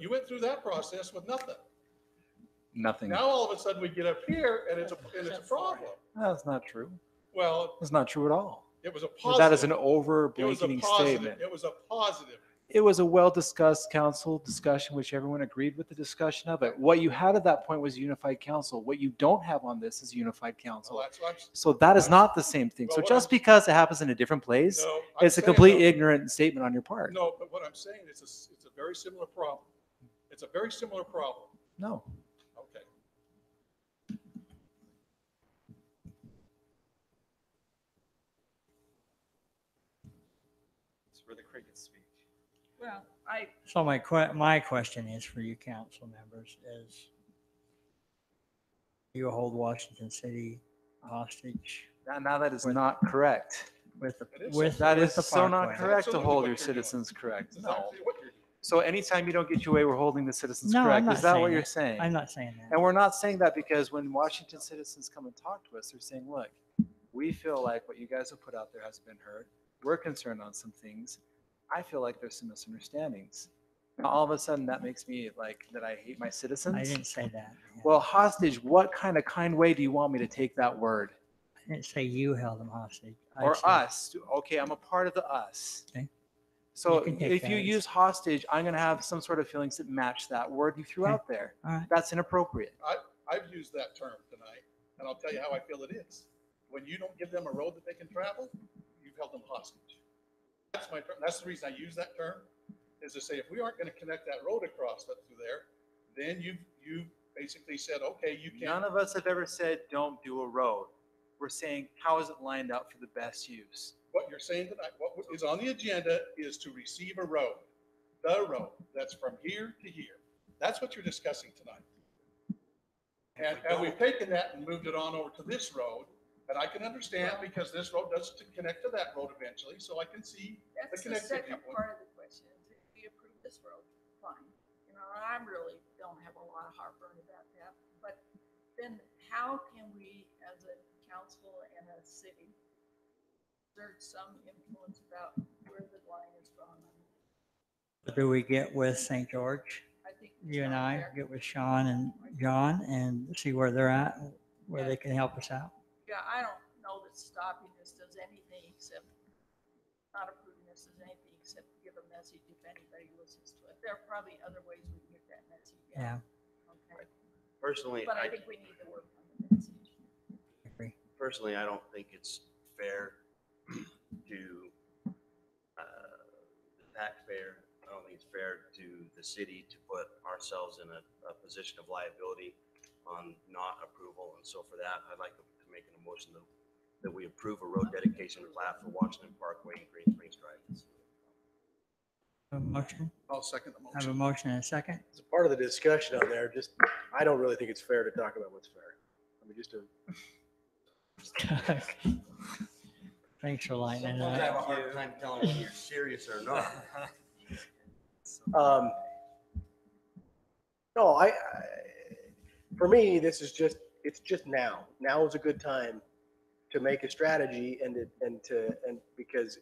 You went through that process with nothing. Nothing. Now all of a sudden we get up here and it's a, and it's a problem. That's not true. Well, That's not true at all. it was a That is an positive. over It was a blanketing positive. statement. It was a positive. It was a well-discussed council discussion, which everyone agreed with the discussion of it. What you had at that point was unified council. What you don't have on this is unified So council. that's what I'm, So that is not the same thing. Well, So what just I'm- because it happens in a different place, no. I'm it's a saying, complete though- ignorant statement on your part. No, but what I'm saying is, it's it's a very similar problem. It's a very similar problem. No. Okay. It's where the crickets speak. Well, I, So my que- my question is for you council members is you hold Washington City hostage Now- Now that is not correct. with the That is- with That with is the so not Parkway. correct to Absolutely hold what your you're doing. citizens correct. This is No. actually what you're doing. So anytime you don't get your way, we're holding the citizens No, I'm correct. not Is that what saying you're that. saying? I'm not saying And that. we're not saying that because when Washington citizens come and talk to us, they're saying, look, we feel like what you guys have put out there hasn't been heard. We're concerned on some things. I feel like there's some misunderstandings. Now, all of a sudden, that makes me like that I hate my I citizens. didn't say that. man. Well, hostage, what kind of kind way do you want me to take that word? I didn't say you held them hostage. I Or said- us? Okay, I'm a part of the us. Okay. So You can take if you that as- use hostage, I'm going to have some sort of feelings that match that word you threw Okay. out there. All right. That's inappropriate. I've used that term tonight, and I'll tell you how I feel it is. When you don't give them a road that they can travel, you've held them hostage. That's my, ter- that's the reason I use that term, is to say, if we aren't gonna connect that road across up through there, then you, you basically said, okay, you None can't. of us have ever said, don't do a road. We're saying, how is it lined up for the best use? What you're saying tonight, what is on the agenda is to receive a road, the road, that's from here to here. That's what you're discussing tonight. And, and we've taken that and moved it on over to this road. And I can understand because this road does to connect to that road eventually, so I can see. that's the connected second people. part of the question. If we approve this road, fine. You know, I really don't have a lot of heartburn about that. But then how can we, as a council and a city, exert some influence about where the line is drawn? I mean, Do we get with St. George? I think it's You and not I fair. get with Sean and John and see where they're at, where Yeah. they can help us out. Yeah, I don't know that stopping this does anything except, not approving this does anything except give a message if anybody listens to it. There are probably other ways we can get that message Yeah, out. Okay, Personally, But I I, think we need to work on the message. I agree. personally, I don't think it's fair to, uh, the taxpayer. I don't think it's fair to the city to put ourselves in a, a position of liability on not approval. And so for that, I'd like to make an motion that, that we approve a road dedication plat for Washington Parkway and Green Springs Drive. Have a motion, I'll second the have a motion. motion and a second. It's part of the discussion on there, just, I don't really think it's fair to talk about what's fair. I mean, just to. Thanks for lightening it Sometimes I have up. a hard time telling when you're serious or not. Um, no, I, I, for me, this is just, it's just now. Now is a good time to make a strategy and to, and to, and because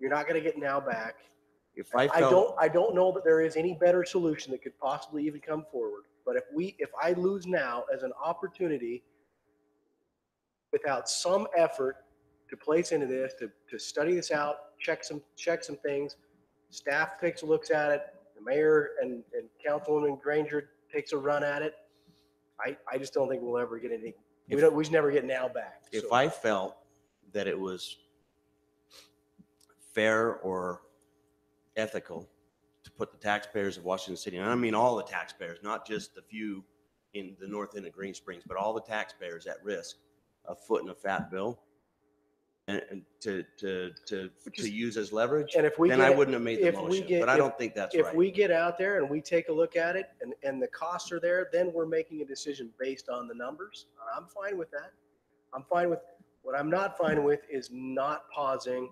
you're not gonna get now back. If I I don't, I don't know that there is any better solution that could possibly even come forward. But if we, if I lose now as an opportunity without some effort to place into this, to, to study this out, check some, check some things, staff takes a look at it, the mayor and, and Councilwoman Granger takes a run at it. I, I just don't think we'll ever get any, we don't, we should never get now back. if So- I felt that it was fair or ethical to put the taxpayers of Washington City, and I mean all the taxpayers, not just the few in the north end of Green Springs, but all the taxpayers at risk of footing a fat bill and, and to, to, to, to use as leverage, And if we. then get I it- wouldn't have made the if we motion. get- But I if- don't think that's if right. we get out there and we take a look at it and, and the costs are there, then we're making a decision based on the numbers. I'm fine with that. I'm fine with, what I'm not fine with is not pausing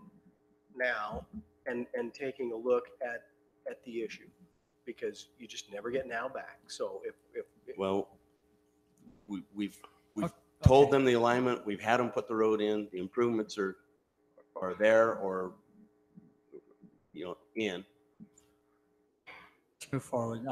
now and, and taking a look at, at the issue. Because you just never get now back. So if, if, Well, we, we've, we've Okay. told them the alignment, we've had them put the road in, the improvements are, are there or, you know, in. Let's move forward.